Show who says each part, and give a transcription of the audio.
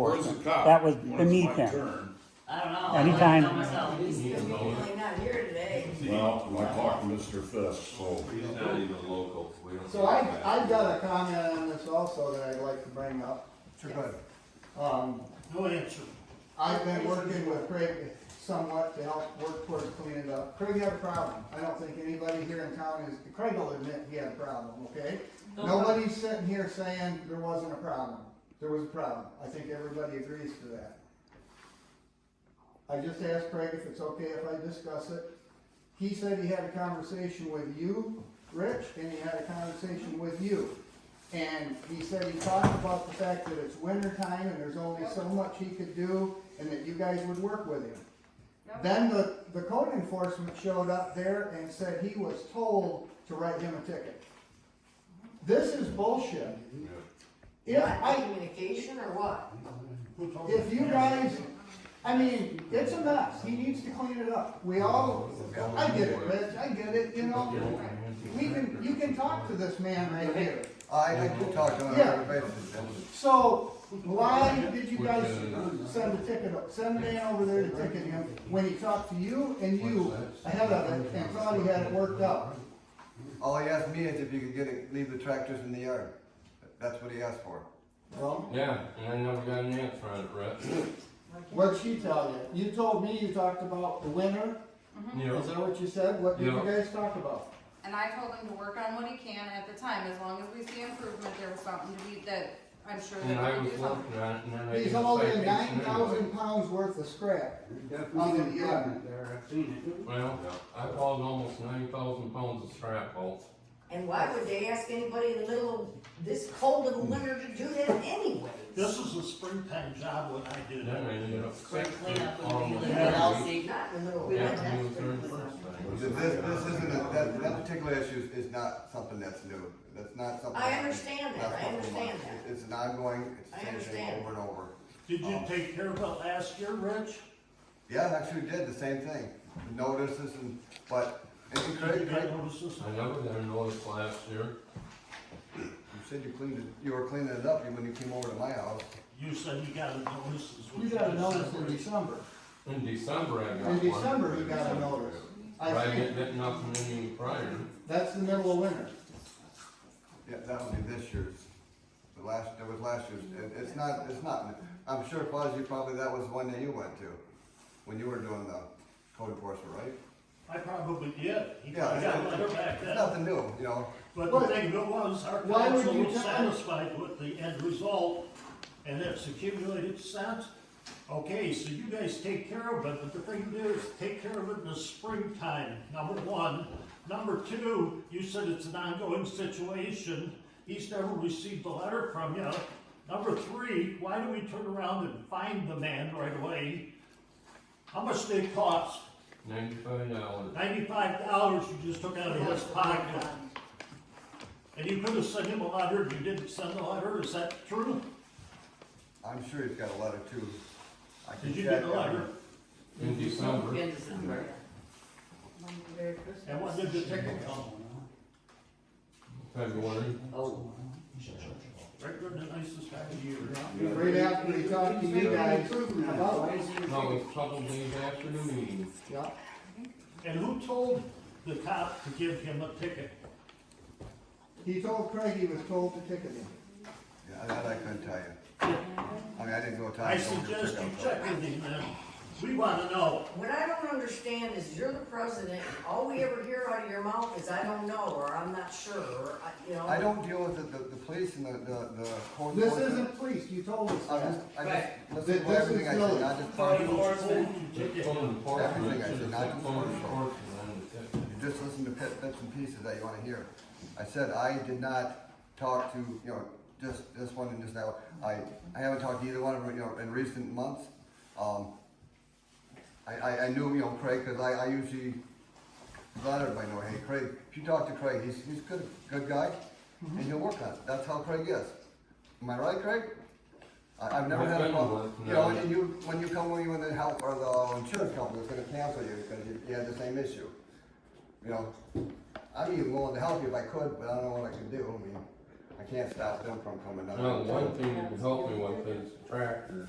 Speaker 1: Where's the cop?
Speaker 2: That was
Speaker 1: When it's
Speaker 2: beneath
Speaker 1: my
Speaker 2: him.
Speaker 1: turn.
Speaker 3: I don't know. I
Speaker 2: Anytime.
Speaker 3: don't know myself.
Speaker 4: He's really not here today.
Speaker 1: Well, I talked to Mr. Fisk, so.
Speaker 5: He's not even local, we don't.
Speaker 6: So I, I've got a comment on this also that I'd like to bring up. Sure, Um,
Speaker 7: No answer.
Speaker 6: I've been working with Craig somewhat to help work towards cleaning it up. Craig had a problem. I don't think anybody here in town is, Craig will admit he had a problem, okay? Nobody's sitting here saying there wasn't a problem. There was a problem. I think everybody agrees to that. I just asked Craig if it's okay if I discuss it. He said he had a conversation with you, Rich, and he had a conversation with you. And he said he talked about the fact that it's winter time and there's only so much he could do and that you guys would work with him. Then the, the code enforcement showed up there and said he was told to write him a ticket. This is bullshit. If
Speaker 4: Lack
Speaker 6: I,
Speaker 4: of Communication or what?
Speaker 6: if you guys, I mean, it's a mess, he needs to clean it up, we all, I get it, Rich, I get it, you know? We can, you can talk to this man right here,
Speaker 8: I, I do talk to him on a regular basis.
Speaker 6: so why did you guys send a ticket, up? send a man over there to ticket him when he talked to you and you ahead of it and thought he had it worked out?
Speaker 8: All he asked me is if you could get it, leave the tractors in the yard. That's what he asked for.
Speaker 6: Well,
Speaker 5: Yeah, and I never got an answer on it, Rhett.
Speaker 6: what'd she tell you? You told me you talked about the winter,
Speaker 5: You know,
Speaker 6: is that what you said, what did you
Speaker 5: Yeah.
Speaker 6: guys talk about?
Speaker 9: And I told him to work on what he can at the time, as long as we see improvement, there was something to be, that I'm sure
Speaker 5: and I
Speaker 9: that
Speaker 5: was
Speaker 9: we can do something.
Speaker 5: working on it, and then I.
Speaker 6: He's
Speaker 5: did a
Speaker 6: hauling
Speaker 5: citation
Speaker 6: nine
Speaker 5: anyway.
Speaker 6: thousand pounds worth of scrap.
Speaker 7: Definitely an improvement there, I've seen it.
Speaker 5: Well, I hauled almost nine thousand pounds of scrap off.
Speaker 4: And why would they ask anybody in the middle of this cold of the winter to do that anyway?
Speaker 7: This is a springtime job when I did
Speaker 5: Then I
Speaker 7: it.
Speaker 5: ended up.
Speaker 3: Spring cleanup would be
Speaker 5: almost
Speaker 3: like
Speaker 5: every
Speaker 3: LC.
Speaker 5: week.
Speaker 4: Not in the middle of
Speaker 5: Yeah,
Speaker 4: winter.
Speaker 5: it was
Speaker 4: that's
Speaker 5: during the
Speaker 4: pretty
Speaker 5: first
Speaker 4: much.
Speaker 5: thing.
Speaker 8: This, this isn't, a- that, that particular issue is is not something that's new. That's not something.
Speaker 4: I understand that.
Speaker 8: not
Speaker 4: I
Speaker 8: something
Speaker 4: understand
Speaker 8: like-
Speaker 4: that.
Speaker 8: It's an ongoing, it's
Speaker 4: I
Speaker 8: the same thing
Speaker 4: understand.
Speaker 8: over and over.
Speaker 7: Did
Speaker 1: Oh.
Speaker 7: you take care of it last year, Rich?
Speaker 8: Yeah, I actually did the same thing. Notices and, but, and
Speaker 7: Did you
Speaker 8: Craig, Craig,
Speaker 7: get notices?
Speaker 5: I never got a notice last year.
Speaker 8: you said you cleaned it, you were cleaning it up when you came over to my house.
Speaker 7: You said you got a notice. is what
Speaker 6: You got a
Speaker 7: just
Speaker 6: notice
Speaker 7: said,
Speaker 6: in
Speaker 7: Rich.
Speaker 6: December.
Speaker 5: In December, I got one.
Speaker 6: In December, you got a notice. I
Speaker 5: But I
Speaker 6: think
Speaker 5: didn't get nothing any prior.
Speaker 6: that's the middle of winter.
Speaker 8: Yeah, that would be this year's, the last, that was last year's, it, it's not, it's not, I'm sure Fuzzy, probably that was the one that you went to, when you were doing the code enforcement, right?
Speaker 7: I probably did. He
Speaker 8: Yeah,
Speaker 7: probably got a
Speaker 8: it's-
Speaker 7: letter back
Speaker 8: It's
Speaker 7: then.
Speaker 8: nothing new, you know,
Speaker 7: But the thing that was, our
Speaker 6: Why would
Speaker 7: council
Speaker 6: you
Speaker 7: was
Speaker 6: tell-
Speaker 7: satisfied with the end result, and it's accumulated since. Okay, so you guys take care of it, but the thing to do is take care of it in the springtime, number one. Number two, you said it's an ongoing situation, he's never received a letter from you. Number three, why do we turn around and find the man right away? How much did it cost?
Speaker 5: Ninety-five dollars.
Speaker 7: Ninety-five dollars you just took out of his pocket. And you could have sent him a letter, and you didn't send the letter, is that true?
Speaker 8: I'm sure he's got a letter too. I can
Speaker 7: Did you
Speaker 8: check
Speaker 7: get the
Speaker 8: that.
Speaker 7: letter?
Speaker 5: In December.
Speaker 3: In December.
Speaker 4: Merry Christmas.
Speaker 7: And what did the ticket come?
Speaker 5: February.
Speaker 7: Right, the nicest time of year.
Speaker 6: Right after he talked to you guys about it.
Speaker 5: No, it's a couple days after the meeting.
Speaker 6: Yeah.
Speaker 7: And who told the cop to give him a ticket?
Speaker 6: He told Craig he was told to ticket him.
Speaker 8: Yeah, that I couldn't tell you. I mean, I didn't go tell
Speaker 7: I
Speaker 8: him. so we could
Speaker 7: suggest you
Speaker 8: check out, but-
Speaker 7: check with him, man. We wanna know.
Speaker 4: What I don't understand is you're the president, all we ever hear out of your mouth is, I don't know, or I'm not sure, or, I- you know.
Speaker 8: I don't deal with the, the, the police and the, the, the code
Speaker 6: This
Speaker 8: enforcement.
Speaker 6: isn't police, you told us
Speaker 8: I just,
Speaker 6: that.
Speaker 8: I just,
Speaker 3: Right.
Speaker 8: listen
Speaker 6: This
Speaker 8: to
Speaker 6: is
Speaker 8: everything I
Speaker 6: silly.
Speaker 8: said, I just,
Speaker 7: Who
Speaker 8: you
Speaker 7: told you to
Speaker 5: It's
Speaker 7: ticket
Speaker 5: phone
Speaker 7: him?
Speaker 5: enforcement,
Speaker 8: Everything I
Speaker 5: it's
Speaker 8: said,
Speaker 5: just
Speaker 8: not
Speaker 5: like phone
Speaker 8: phone.
Speaker 5: enforcement on the ticket.
Speaker 8: just listen to pit- bits and pieces that you wanna hear. I said, I did not talk to, you know, just this one and just that one. I, I haven't talked to either one of them, you know, in recent months. Um, I, I, I knew, you know, Craig, cause I, I usually let everybody know, hey, Craig, if you talk to Craig, he's, he's good, good guy, and he'll work on it. That's how Craig is. Am I right, Craig? I, I've never
Speaker 5: I've
Speaker 8: had a
Speaker 5: been
Speaker 8: problem.
Speaker 5: with-
Speaker 8: You know,
Speaker 5: no.
Speaker 8: and you, when you come, when you, when the health or the insurance company is gonna cancel you because you, you had the same issue. You know, I'd be willing to help you if I could, but I don't know what I can do. I mean, I can't stop them from coming down.
Speaker 5: No, one thing that would help me with is tractor,